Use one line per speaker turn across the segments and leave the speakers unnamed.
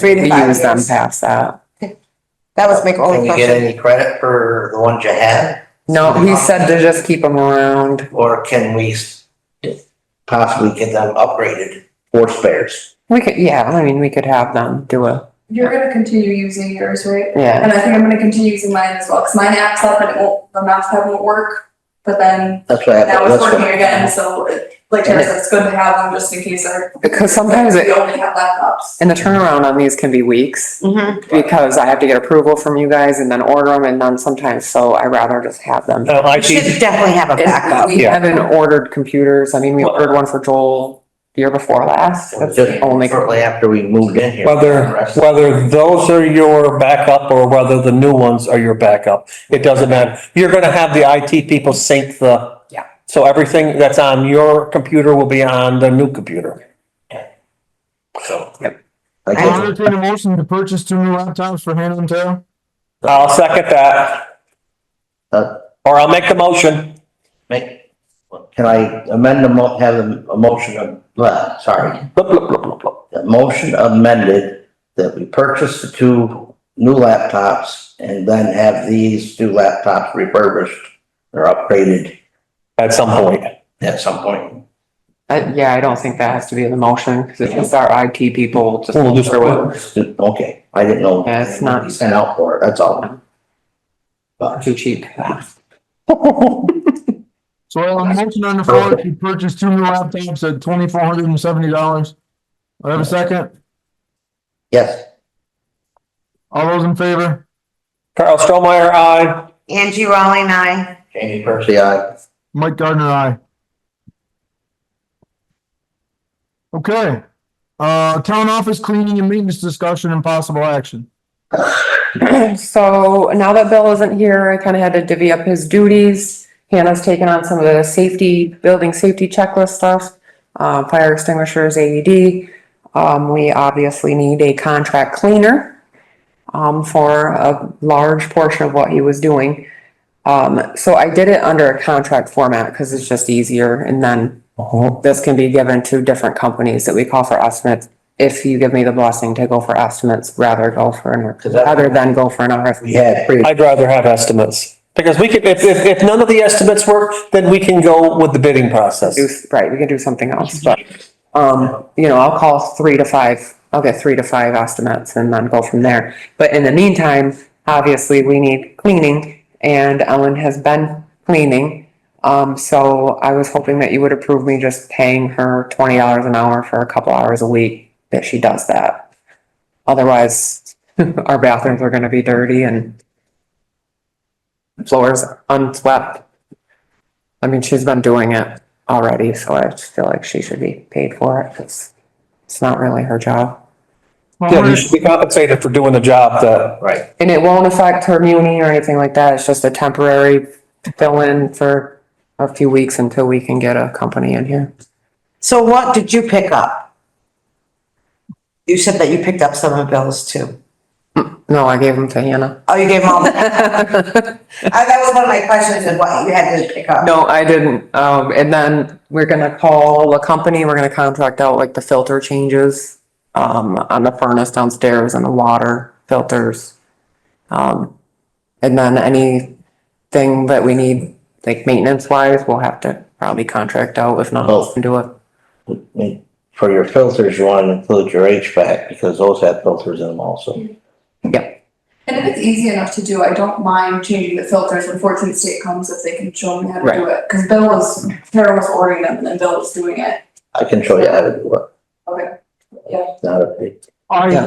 Three to
We
five
use them
years.
past that.
That was my
Oh,
Can
only
you get
question.
any credit for the ones you had,
No, he said to just keep them around.
or can we s- possibly get them upgraded for spares?
We could, yeah, I mean, we could have them do a,
You're gonna continue using yours, right?
yeah.
And I think I'm gonna continue using mine as well, cause mine apps up and it won't, the mouse pad won't work, but then
That's what
now
happened.
it's
That's
working
what-
again, so it- like Tara said, it's good to have them just in case our.
Because sometimes it-
We only have laptops.
And the turnaround on these can be weeks
Mhm.
because I have to get approval from you guys and then order them and then sometimes, so I rather just have them.
Uh, I
You should
see,
definitely have a
And
backup.
We
Yeah.
haven't ordered computers. I mean, we ordered one for Joel the year before last. That's the
Just
only.
shortly after we moved in here.
whether, whether those are your backup or whether the new ones are your backup, it doesn't matter. You're gonna have the IT people sync the.
Yeah.
So everything that's on your computer will be on the new computer.
So.
Yep. Um,
I
I'll
guess-
entertain a motion to purchase two new laptops for Hannah and Tara.
I'll second that,
uh,
or I'll make the motion.
Make, can I amend the mo, have a a motion of, uh, sorry,
Blah, blah, blah, blah, blah.
the motion amended that we purchase the two new laptops and then have these two laptops refurbished or upgraded
At some point.
at some point.
Uh, yeah, I don't think that has to be in the motion because it's just our IT people just.
We'll just-
Okay, I didn't know.
Yeah, it's not-
You Sent out for it, that's all. But
Too cheap.
So uh, I have a motion on the floor to purchase two new laptops at twenty-four hundred and seventy dollars. I have a second.
yes,
All those in favor?
Carl Strohmeyer, aye.
Angie Raleigh and I,
Jamie Percy, uh, I,
Mike Gardner, aye. Okay, uh, town office cleaning and maintenance discussion and possible action.
So now that Bill isn't here, I kind of had to divvy up his duties. Hannah's taken on some of the safety, building safety checklist stuff, uh, fire extinguishers, AED. Um, we obviously need a contract cleaner, um, for a large portion of what he was doing. Um, so I did it under a contract format because it's just easier and then
Uh-huh.
this can be given to different companies that we call for estimates. If you give me the blessing to go for estimates, rather go for an
because
rather
that,
than go for an
we
RFP.
had pretty,
I'd rather have estimates, because we could, if, if, if none of the estimates work, then we can go with the bidding process.
Do- Right, we can do something else, but, um, you know, I'll call three to five, I'll get three to five estimates and then go from there. But in the meantime, obviously, we need cleaning and Ellen has been cleaning. Um, so I was hoping that you would approve me just paying her twenty dollars an hour for a couple hours a week that she does that. Otherwise, our bathrooms are gonna be dirty and floors unswept. I mean, she's been doing it already, so I just feel like she should be paid for it, because it's not really her job.
Yeah, you should be compensated for doing the job that,
right,
And it won't affect her muni or anything like that, it's just a temporary fill-in for a few weeks until we can get a company in here.
so what did you pick up? You said that you picked up some of Bill's too.
No, I gave them to Hannah.
Oh, you gave him all, I- that was one of my questions, is what you had to pick up.
No, I didn't, um, and then we're gonna call a company, we're gonna contract out like the filter changes, um, on the furnace downstairs and the water filters. Um, and then anything that we need, like maintenance wise, we'll have to probably contract out, if not,
Oh.
do it.
I mean, for your filters, you want to include your HVAC, because those have filters in them also.
And if it's easy enough to do, I don't mind changing the filters when Fortune State comes, if they can show me how to do it, cause Bill was, Tara was ordering them and then Bill was doing it.
I can show you how to do it.
Okay.
It's Not a big,
Yeah.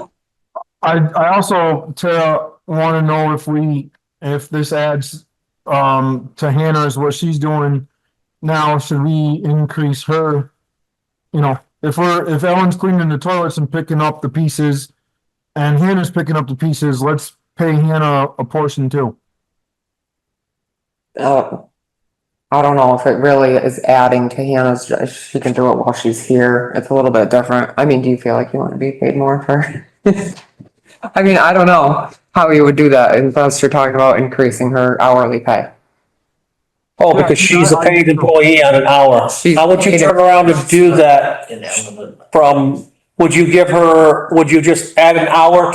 I, I, I also, Tara, wanna know if we, if this adds, um, to Hannah's, what she's doing now, should we increase her? You know, if we're, if Ellen's cleaning the toilets and picking up the pieces, and Hannah's picking up the pieces, let's pay Hannah a portion too.
Uh, I don't know if it really is adding to Hannah's, if she can do it while she's here, it's a little bit different, I mean, do you feel like you want to be paid more for? I mean, I don't know how you would do that unless you're talking about increasing her hourly pay.
oh, because she's a paid employee on an hour.
She's
How would you turn around and do that
you know,
from Would you give her, would you just add an hour